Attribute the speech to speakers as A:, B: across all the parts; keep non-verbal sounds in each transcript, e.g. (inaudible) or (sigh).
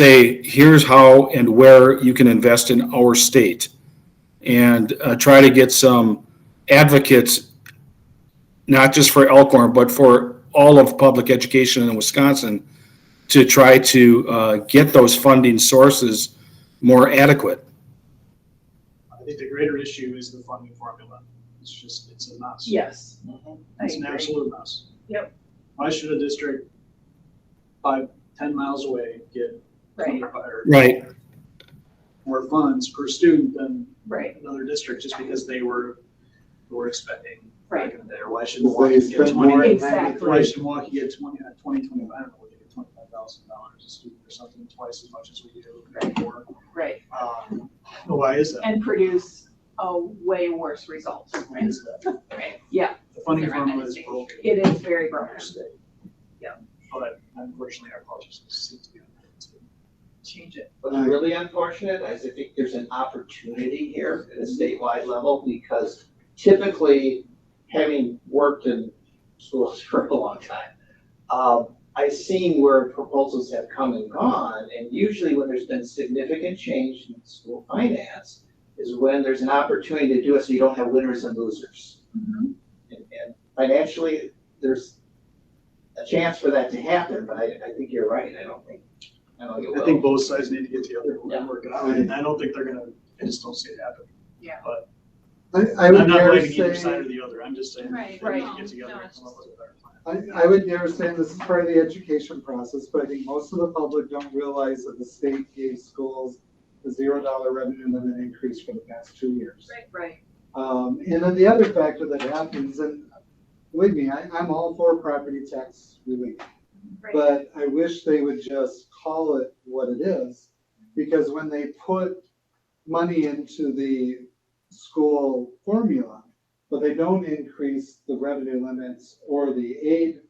A: say, here's how and where you can invest in our state. And uh, try to get some advocates, not just for Elkhorn, but for all of public education in Wisconsin to try to uh, get those funding sources more adequate.
B: I think the greater issue is the funding formula. It's just, it's a mess.
C: Yes. I
B: It's an
C: agree.
B: absolute mess.
C: Yep.
B: Why should a district five, ten miles away get
C: Right,
B: funded or
A: Right.
B: more funds per student than
C: right,
B: another district just because they were, were expecting back
C: right.
B: in the day? Or Why should
D: They
B: Milwaukee get
D: spent
B: twenty?
D: more.
C: Exactly.
B: Why should Milwaukee get twenty, uh, twenty, twenty-five, I don't know, what they get twenty-five thousand dollars a student or something, twice as much as we do, maybe more.
C: Right,
B: Um, Why is that?
C: and produce a way worse result.
B: Why is that?
C: Right. Yeah,
B: The funding
C: They're
B: formula is
C: amazing.
B: broken.
C: it is very broken.
B: state.
C: Yeah.
B: But unfortunately, our politics seem to be. on that too.
C: Change it.
D: All
E: What's
D: right.
E: really unfortunate is I think there's an opportunity here at a statewide level because typically, having worked in schools (laughs) for a long time, um, I've seen where proposals have come and gone, and usually when there's been significant change in school finance is when there's an opportunity to do it so you don't have winners and losers.
C: Mm-hmm.
E: And, and financially, there's a chance for that to happen, but I, I think you're right, I don't think, I don't think it will.
B: I think both sides need to get together
E: Yeah.
B: and work it out, and I don't think they're gonna, I just don't see it happen.
D: I, I
B: I'm
D: would
B: not
D: dare
B: blaming either side or
D: say,
B: the other, I'm just saying, they need
F: Right,
B: to
F: right.
B: get together
F: No,
B: and
F: it's
B: come up with a better plan.
D: I, I would dare say this is part of the education process, but I think most of the public don't realize that the state gave schools a zero dollar revenue limit increase for the past two years.
C: Right,
D: Um, and then the other factor that happens, and believe me, I, I'm all for property tax relief.
C: right,
D: But I wish they would just call it what it is, because when they put money into the school formula, but they don't increase the revenue limits or the aid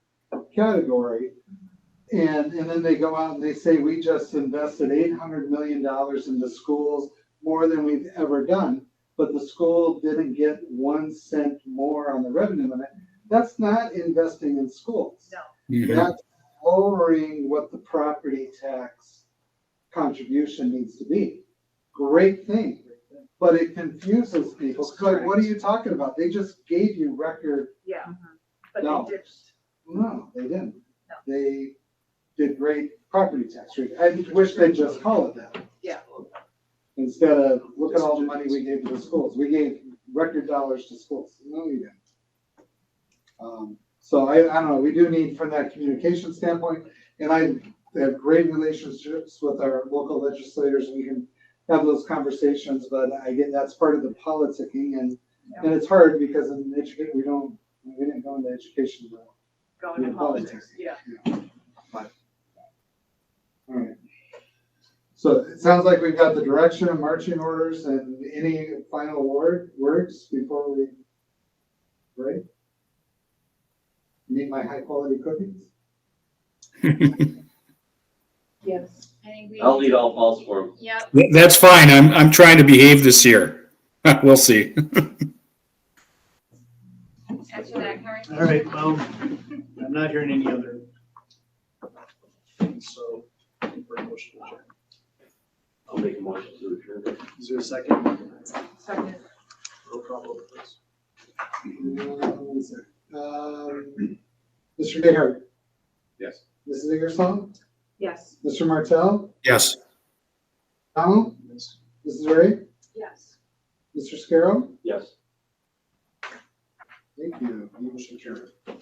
D: category. And, and then they go out and they say, we just invested eight hundred million dollars into schools, more than we've ever done. But the school didn't get one cent more on the revenue limit. That's not investing in schools
A: Mm-hmm.
D: that's lowering what the property tax contribution needs to be. Great thing, but it confuses people, 'cause like, what are you talking about? They just gave you record,
C: yeah.
D: But they No.
C: ditched.
D: no, they didn't.
C: No.
D: They did great property tax rate, I wish they'd just call it that.
C: Yeah.
D: Instead of, look at all the money we gave to the schools, we gave record dollars to schools, no, we didn't. Um, so I, I don't know, we do need from that communication standpoint, and I have great relationships with our local legislators, we can have those conversations, but I get, that's part of the politicking and, and it's hard because in education, we don't, we didn't go into education. well.
C: Going to
D: Yeah,
C: politics,
D: politics.
C: yeah.
D: All right. So it sounds like we've got the direction and marching orders and any final word, words before we, right? Need my high quality cookies?
C: Yes.
F: I think we.
E: I'll lead all calls for him.
F: Yep,
A: That's fine. I'm, I'm trying to behave this year. (laughs) We'll see.
F: after that conversation.
B: All right, well, I'm not hearing any other. So, for a motion, to adjourn.
E: I'll make a motion to adjourn.
B: is there a second?
C: Second.
B: Roll call vote, please.
D: Um, Mr. Gayheart?
E: Yes.
D: Mrs. Ingersoll?
C: Yes.
D: Mr. Martell?
A: Yes.
D: Donald?
B: Yes.
D: Mrs. Ray?
C: Yes.
D: Mr. Scarrow?
E: Yes.
D: Thank you. Motion carried.